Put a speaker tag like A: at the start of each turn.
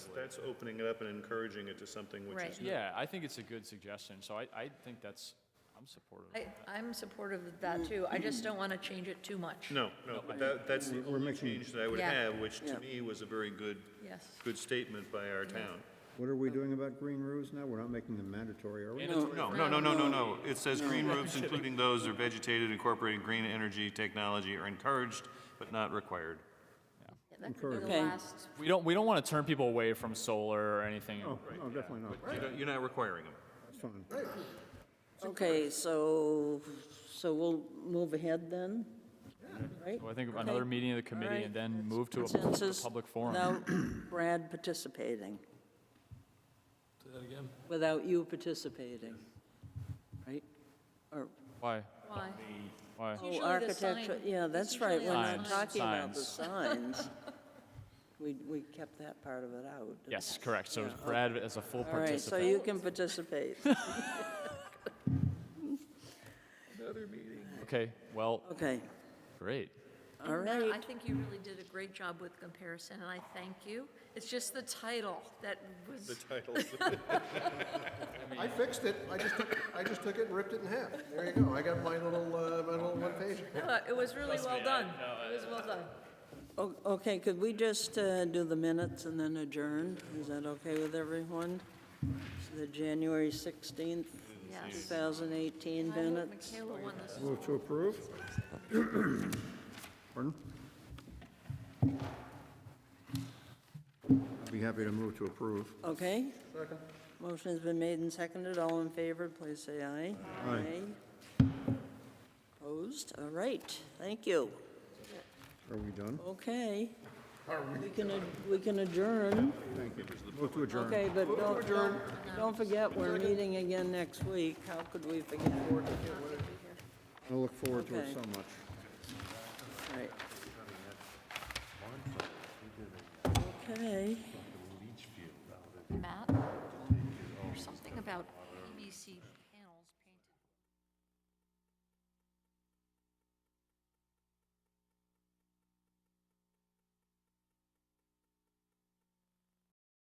A: that's opening it up and encouraging it to something which
B: Right.
A: is.
C: Yeah, I think it's a good suggestion, so I, I think that's, I'm supportive of
B: I,
C: that.
B: I'm supportive of that too. I just don't want to change it too much.
A: No, no, but that, that's the only change that I would
B: Yeah.
A: have, which to me was a very good,
B: Yes.
A: good statement by our town.
D: What are we doing about green roofs now? We're not making them mandatory, are we?
A: No, no, no, no, no, no. It says green roofs, including those that are vegetated incorporating green energy technology are encouraged, but not required.
B: Yeah, That could be the
E: Okay.
B: last,
C: We don't, we don't want to turn people away from solar or anything.
D: Oh, no, definitely not.
A: You don't- You're not requiring them.
D: That's fine.
E: Okay, so, so we'll move ahead then, right?
C: Well, I think another meeting of the committee and then move to a the
E: Consensus?
C: public forum.
E: Without Brad participating. Without you participating, right? Or,
C: Why?
B: why?
C: Why?
B: It's
E: oh,
B: usually the
E: architecture,
B: sign.
E: yeah,
B: It's
E: that's right,
B: usually the
E: we're not
C: Signs.
B: sign.
E: talking about the
C: Signs.
E: signs. We, we kept that part of it out. didn't we?
C: Yes, correct, so it's Brad as a full
E: All right, so
C: participant.
E: you can participate.
C: Okay, well,
E: Okay,
C: great.
E: all
B: No, I
E: right.
B: think you really did a great job with comparison and I thank you. It's just the title that was,
F: I fixed it. I just took, I just took it and ripped it in half. There you go. I got my little, uh, my little one page.
B: Uh, it was really well done. It was well done.
E: O- Okay, could we just uh, do the minutes and then adjourn? Is that okay with everyone? The January 16th,
B: Yes.
E: 2018
B: I hope
E: minutes?
B: Michaela won this.
D: Move to approve? Pardon? I'd be happy to move to approve.
E: Okay? Motion's been made and seconded. All in favor, please say aye.
D: Aye.
E: Opposed? All right, thank you.
D: Are we done?
E: Okay. We can, ad- we can adjourn.
D: Thank you. Move to adjourn.
E: Okay, but don't, don't- don't forget, we're meeting again next week. How could we forget?
D: I look forward to it
E: Okay.
D: so much.
E: Right. Okay,
B: Matt, there's something about PVC